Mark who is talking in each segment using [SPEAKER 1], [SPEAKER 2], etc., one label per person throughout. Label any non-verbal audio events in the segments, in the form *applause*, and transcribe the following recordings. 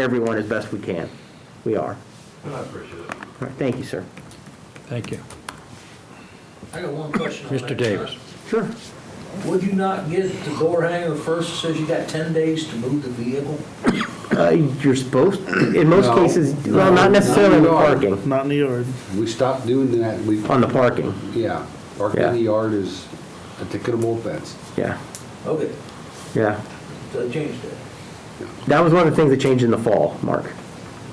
[SPEAKER 1] everyone as best we can. We are.
[SPEAKER 2] I appreciate it.
[SPEAKER 1] All right, Thank you, sir.
[SPEAKER 3] Thank you.
[SPEAKER 4] I got one question. on
[SPEAKER 3] Mr.
[SPEAKER 4] that.
[SPEAKER 3] Davis.
[SPEAKER 1] Sure.
[SPEAKER 4] Would you not get the door hanger first, It says you got 10 days to move the vehicle?
[SPEAKER 1] Uh, You're supposed, in most
[SPEAKER 5] No.
[SPEAKER 1] cases,
[SPEAKER 5] No,
[SPEAKER 1] well, not necessarily on the
[SPEAKER 5] not.
[SPEAKER 1] parking,
[SPEAKER 6] Not in the yard.
[SPEAKER 5] We stopped doing that, we,
[SPEAKER 1] on the parking,
[SPEAKER 5] yeah, parking in the
[SPEAKER 1] Yeah.
[SPEAKER 5] yard is a ticketable offense.
[SPEAKER 1] yeah,
[SPEAKER 4] Okay,
[SPEAKER 1] yeah.
[SPEAKER 4] so they changed that.
[SPEAKER 1] That was one of the things that changed in the fall, Mark.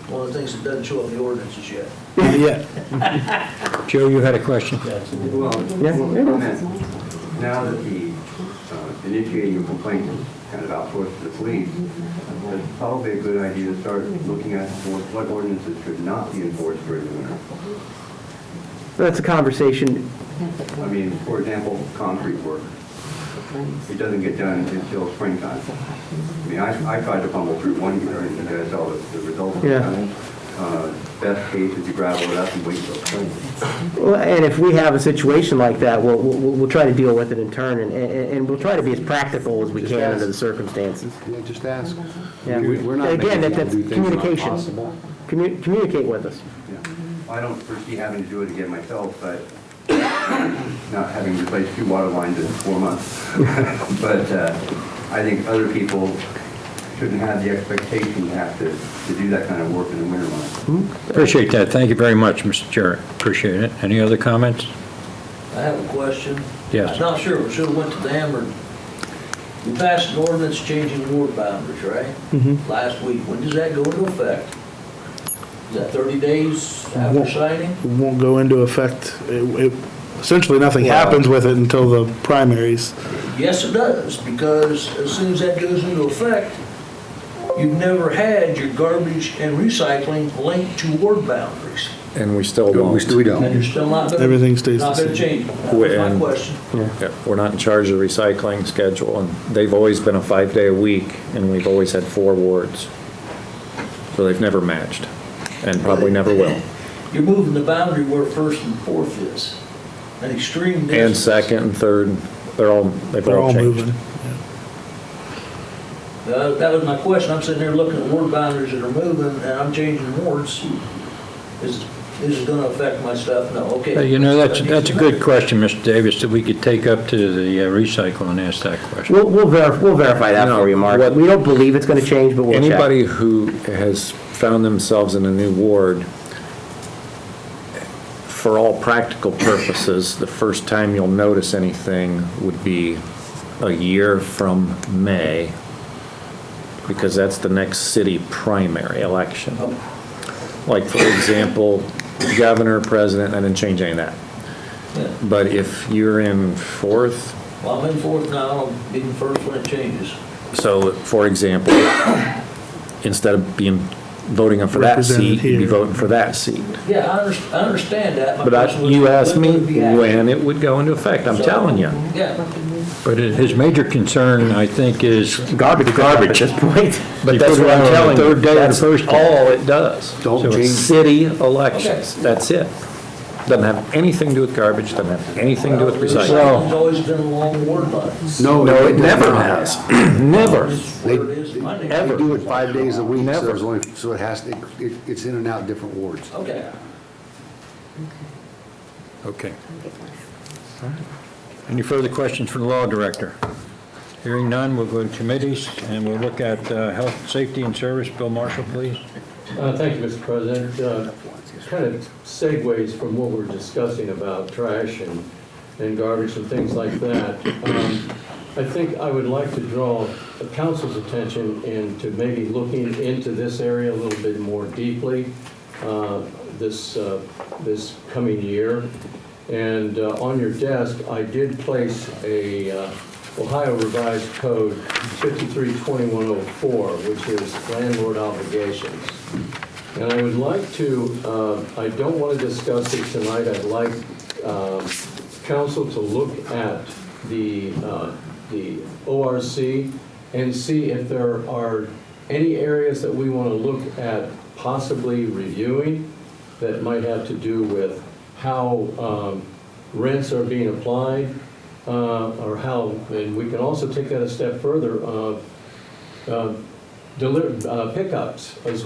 [SPEAKER 4] One of the things that doesn't show up in the ordinances yet.
[SPEAKER 6] Yeah.
[SPEAKER 3] Joe, you had a question?
[SPEAKER 2] Well,
[SPEAKER 1] Yeah,
[SPEAKER 2] well,
[SPEAKER 1] yeah.
[SPEAKER 2] comment. now that the uh, initiating of complaints is kind of outsourced to the police, it's probably a good idea to start looking at what what ordinances should not be enforced during the winter.
[SPEAKER 1] That's a conversation,
[SPEAKER 2] I mean, for example, concrete work. It doesn't get done until springtime. I mean, I, I tried to fumble through one year, and you guys saw the, the results. of
[SPEAKER 1] Yeah.
[SPEAKER 2] that. Uh, Best case is you gravel it up and wait till spring.
[SPEAKER 1] Well, and if we have a situation like that, we'll, we'll we'll try to deal with it in turn, and, and and we'll try to be as practical as we
[SPEAKER 5] Just
[SPEAKER 1] can
[SPEAKER 5] ask.
[SPEAKER 1] under the circumstances.
[SPEAKER 5] Yeah, just ask.
[SPEAKER 1] Yeah.
[SPEAKER 5] We- We're not
[SPEAKER 1] Again,
[SPEAKER 5] making
[SPEAKER 1] that-
[SPEAKER 5] people
[SPEAKER 1] that's
[SPEAKER 5] do things that aren't
[SPEAKER 1] communication.
[SPEAKER 5] possible.
[SPEAKER 1] Commu- Communicate with us.
[SPEAKER 2] Yeah. I don't foresee having to do it again myself, but not having replaced two water lines in four months. *laughs* But uh, I think other people shouldn't have the expectation to have to, to do that kind of work in the winter months.
[SPEAKER 3] Appreciate that. Thank you very much, Mr. Jarrett. Appreciate it. Any other comments?
[SPEAKER 4] I have a question.
[SPEAKER 3] Yes.
[SPEAKER 4] I'm not sure, we should have went to them, or we passed an ordinance changing ward boundaries, right?
[SPEAKER 3] Mm-hmm.
[SPEAKER 4] Last week, when does that go into effect? Is that 30 days after
[SPEAKER 6] Won't-
[SPEAKER 4] signing?
[SPEAKER 6] It won't go into effect. It, it, essentially, nothing happens with it until the primaries.
[SPEAKER 4] Yes, it does, because as soon as that goes into effect, you've never had your garbage and recycling linked to ward boundaries.
[SPEAKER 7] And we still
[SPEAKER 5] We
[SPEAKER 7] won't.
[SPEAKER 5] still
[SPEAKER 4] And you're
[SPEAKER 5] don't.
[SPEAKER 4] still not gonna.
[SPEAKER 6] Everything stays the
[SPEAKER 4] Not gonna
[SPEAKER 6] same.
[SPEAKER 4] change. That was my
[SPEAKER 7] And-
[SPEAKER 4] question.
[SPEAKER 7] Yeah, We're not in charge of the recycling schedule, and they've always been a five-day-a-week, and we've always had four wards. So they've never matched, and probably never will.
[SPEAKER 4] You're moving the boundary where first and fourth is, an extreme distance.
[SPEAKER 7] And second and third, they're all, they've
[SPEAKER 6] They're
[SPEAKER 7] all
[SPEAKER 6] all
[SPEAKER 7] changed.
[SPEAKER 6] moving.
[SPEAKER 4] Uh, That was my question. I'm sitting there looking at ward boundaries that are moving, and I'm changing wards. Is, is it gonna affect my stuff? No,
[SPEAKER 3] Uh,
[SPEAKER 4] okay.
[SPEAKER 3] You know, that's, that's a good question, Mr. Davis, that we could take up to the uh, recycle and ask that question.
[SPEAKER 1] We'll, we'll verify, we'll verify that
[SPEAKER 7] No,
[SPEAKER 1] for you, Mark.
[SPEAKER 7] what-
[SPEAKER 1] We don't believe it's gonna change, but we'll check.
[SPEAKER 7] Anybody who has found themselves in a new ward, for all practical purposes, the first time you'll notice anything would be a year from May, because that's the next city primary election. Like, for example, governor, president, I didn't change any of that.
[SPEAKER 4] Yeah.
[SPEAKER 7] But if you're in fourth,
[SPEAKER 4] Well, I'm in fourth now, I'll be in first when it changes.
[SPEAKER 7] So, for example, instead of being, voting for that seat, you'd be
[SPEAKER 6] Represented here.
[SPEAKER 7] voting for that seat.
[SPEAKER 4] Yeah, I under, I understand that. My
[SPEAKER 7] But I-
[SPEAKER 4] question was,
[SPEAKER 7] you asked me
[SPEAKER 4] would it be accurate?
[SPEAKER 7] when it would go into effect, I'm
[SPEAKER 4] So-
[SPEAKER 7] telling you.
[SPEAKER 4] Yeah,
[SPEAKER 3] But it- his major concern, I think, is,
[SPEAKER 1] Garbage, garbage at this point.
[SPEAKER 3] You
[SPEAKER 7] But that's
[SPEAKER 3] put it
[SPEAKER 7] what
[SPEAKER 3] on
[SPEAKER 7] I'm
[SPEAKER 3] the
[SPEAKER 7] telling you,
[SPEAKER 3] third day of the
[SPEAKER 7] that's
[SPEAKER 3] first day.
[SPEAKER 7] all it does.
[SPEAKER 5] Don't
[SPEAKER 7] So it's
[SPEAKER 5] change-
[SPEAKER 7] City elections, that's it. Doesn't have anything to do with garbage, doesn't have anything to do with recycling.
[SPEAKER 4] recycling's always been along ward lines.
[SPEAKER 7] No, it
[SPEAKER 5] does
[SPEAKER 7] never
[SPEAKER 5] not.
[SPEAKER 7] has, never.
[SPEAKER 4] It's where it is in my
[SPEAKER 5] They
[SPEAKER 4] neighborhood.
[SPEAKER 5] do it five days a week, so
[SPEAKER 7] Never.
[SPEAKER 5] there's only, so it has, it, it- it's in and out different wards.
[SPEAKER 4] Okay.
[SPEAKER 3] okay. Any further questions for the law director? Hearing none, we'll go to committees, and we'll look at uh, health, safety, and service. Bill Marshall, please.
[SPEAKER 8] Uh, Thank you, Mr. President. Uh, Kind of segues from what we're discussing about trash and, and garbage and things like that. Um, I think I would like to draw the council's attention into maybe looking into this area a little bit more deeply uh, this, uh, this coming year. And uh, on your desk, I did place a uh, Ohio Revised Code 532104, which is landlord obligations. And I would like to, uh, I don't want to discuss it tonight, I'd like um, council to look at the, uh, the ORC and see if there are any areas that we want to look at possibly reviewing that might have to do with how um, rents are being applied, uh, or how, and we can also take that a step further, uh, uh, deli- uh, pickups as